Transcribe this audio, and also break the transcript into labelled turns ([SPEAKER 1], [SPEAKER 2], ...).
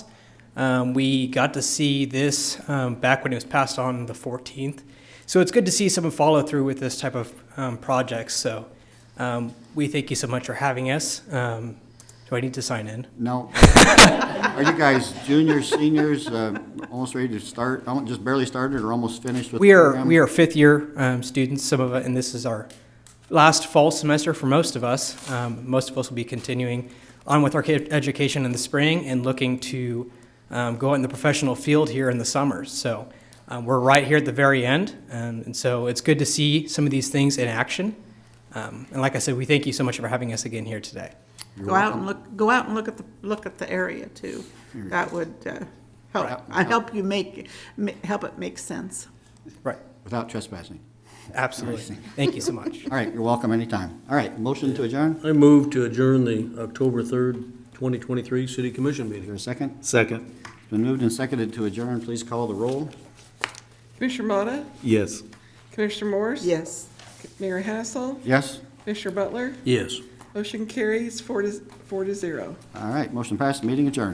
[SPEAKER 1] Um, we got to see this um, back when it was passed on the 14th. So it's good to see some follow through with this type of um, projects. So um, we thank you so much for having us. Um, do I need to sign in?
[SPEAKER 2] No. Are you guys juniors, seniors, uh, almost ready to start, almo- just barely started or almost finished with? the
[SPEAKER 1] We are
[SPEAKER 2] program?
[SPEAKER 1] we are fifth year um, students. Some of us, and this is our last fall semester for most of us. Um, most of us will be continuing on with our ca- education in the spring and looking to um, go out in the professional field here in the summer. So um, we're right here at the very end, um, and so it's good to see some of these things in action. Um, and like I said, we thank you so much for having us again here today.
[SPEAKER 2] You're
[SPEAKER 3] Go out
[SPEAKER 2] welcome.
[SPEAKER 3] and look, go out and look at the, look at the area too. That would uh, help,
[SPEAKER 2] Right.
[SPEAKER 3] I help you make, ma- help it make sense.
[SPEAKER 1] Right.
[SPEAKER 2] Without trespassing.
[SPEAKER 1] Absolutely. Thank you so much.
[SPEAKER 2] All right, you're welcome anytime. All right, motion to adjourn?
[SPEAKER 4] I move to adjourn the October 3rd, 2023 City Commission
[SPEAKER 2] Is
[SPEAKER 4] meeting.
[SPEAKER 2] there a second?
[SPEAKER 4] Second.
[SPEAKER 2] It's been moved and seconded to adjourn. Please call the roll.
[SPEAKER 5] Commissioner Motta,
[SPEAKER 4] Yes.
[SPEAKER 5] Commissioner Morse?
[SPEAKER 3] Yes.
[SPEAKER 5] Mayor Hassel,
[SPEAKER 2] Yes?
[SPEAKER 5] Commissioner Butler,
[SPEAKER 4] Yes.
[SPEAKER 5] motion carries four to, four to zero.
[SPEAKER 2] All right, motion passed, meeting adjourned.